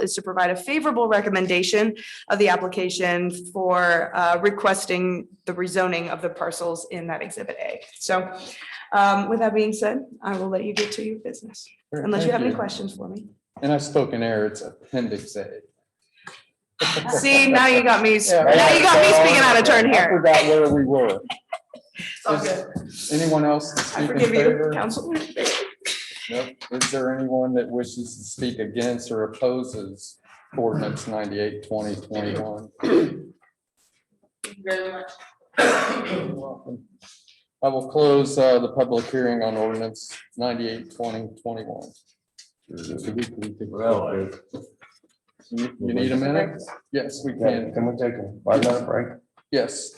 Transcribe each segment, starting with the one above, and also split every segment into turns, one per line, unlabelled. is to provide a favorable recommendation of the application for uh, requesting the rezoning of the parcels in that Exhibit A. So um, with that being said, I will let you get to your business,
Sure,
unless you
thank
have any questions for me.
And I've spoken error, it's appendix A.
See, now you got me,
Yeah,
now you got me speaking out of turn
I
here.
forgot where we were.
It's all good.
Is Anyone else to
I
speak in
forgive you,
favor?
Councilman.
Nope. Is there anyone that wishes to speak against or opposes ordinance 98 2021? You're welcome. I will close uh, the public hearing on ordinance 98 2021.
Well, I-
You you need a minute? Yes, we
yeah,
can.
can we take a five minute break?
Yes.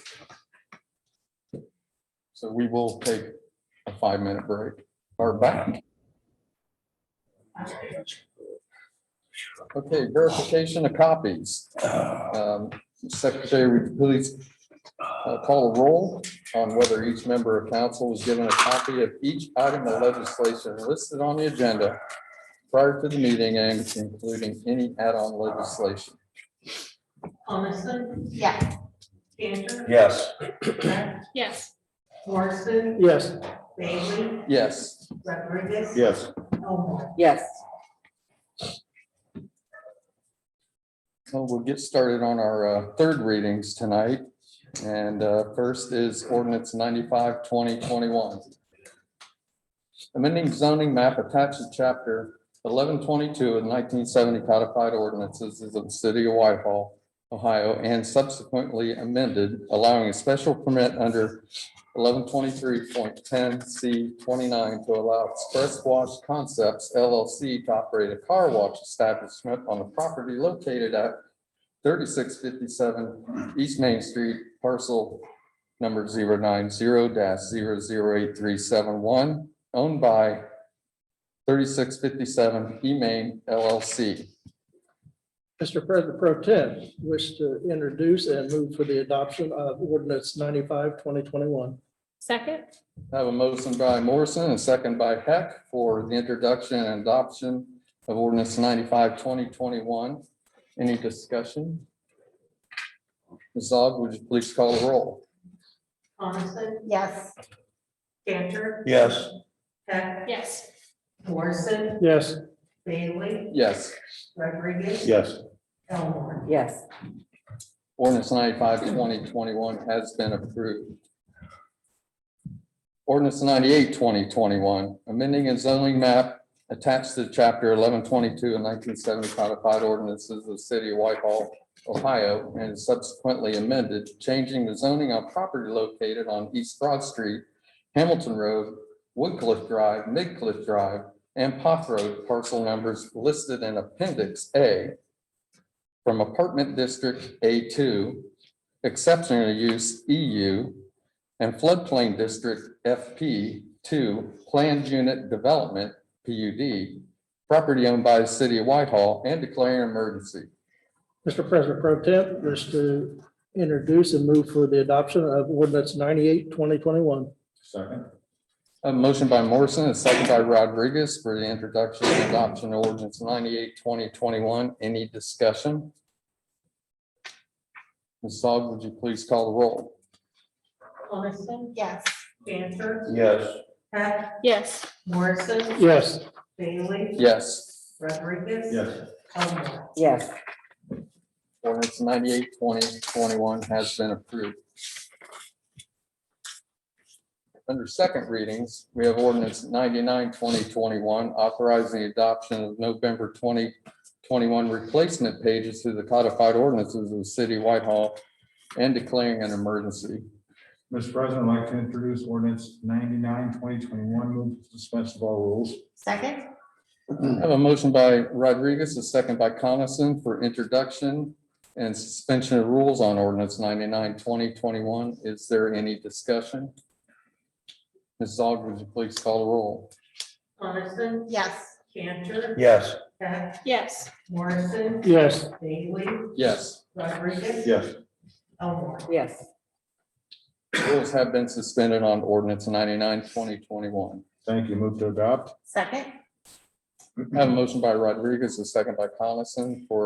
So we will take a five-minute break or back. Okay, verification of copies. Um, Secretary, would you please uh, call a roll on whether each member of council was given a copy of each item of legislation listed on the agenda prior to the meeting and including any add-on legislation.
Coniston? Yes. Cantor?
Yes.
Yes.
Yes.
Morrison?
Yes.
Bailey?
Yes.
Rodriguez?
Yes.
Elmore?
Yes.
Well, we'll get started on our uh, third readings tonight. And uh, first is ordinance 95 2021, Amending zoning map attached to chapter eleven twenty-two of nineteen seventy codified ordinances of the city of Whitehall, Ohio, and subsequently amended, allowing a special permit under eleven twenty-three point ten C twenty-nine to allow Express Wash Concepts LLC to operate a car wash establishment on the property located at thirty-six fifty-seven East Main Street, parcel number 090-008371, owned by thirty-six fifty-seven E Main LLC.
Mr. President Pro Tem wish to introduce and move for the adoption of ordinance 95 2021.
Second?
I have a motion by Morrison and a second by Heck for the introduction and adoption of ordinance 95 2021. Any discussion? Ms. Aug, would you please call the roll?
Coniston?
Yes.
Cantor?
Yes.
Heck?
Yes.
Morrison?
Yes.
Bailey?
Yes,
Rodriguez?
Yes.
Elmore?
Yes.
ordinance 95 2021 has been approved. Ordinance 98 2021, amending and zoning map attached to chapter eleven twenty-two and nineteen seventy codified ordinances of the city of Whitehall, Ohio, and subsequently amended, changing the zoning on property located on East Broad Street, Hamilton Road, Woodcliff Drive, Midcliff Drive, and Poff Road parcel numbers listed in Appendix A from apartment district A two, exceptional use EU, and floodplain district FP two, planned unit development PUD, property owned by the city of Whitehall and declaring emergency.
Mr. President Pro Tem wish to introduce and move for the adoption of ordinance 98 2021.
Second.
A motion by Morrison and a second by Rodriguez for the introduction and adoption of ordinance 98 2021. Any discussion? Ms. Aug, would you please call the roll?
Coniston?
Yes.
Cantor?
Yes.
Heck?
Yes.
Morrison?
Yes.
Bailey?
Yes.
Rodriguez? Elmore?
Yes.
Ordinance 98 2021 has been approved. Under second readings, we have ordinance 99 2021 authorizing the adoption of November twenty twenty-one replacement pages to the codified ordinances of the city of Whitehall and declaring an emergency.
Mr. President, I'd like to introduce ordinance 99-2021. move to suspension of all rules.
Second?
I have a motion by Rodriguez, a second by Coniston for introduction and suspension of rules on ordinance 99 2021. Is there any discussion? Ms. Aug, would you please call the roll?
Coniston?
Yes.
Cantor?
Yes.
Heck?
Yes.
Morrison?
Yes.
Bailey?
Yes.
Rodriguez?
Yes.
Elmore?
Yes.
Rules have been suspended on ordinance 99 2021.
Thank you. Move to adopt.
Second?
I have a motion by Rodriguez, a second by Coniston for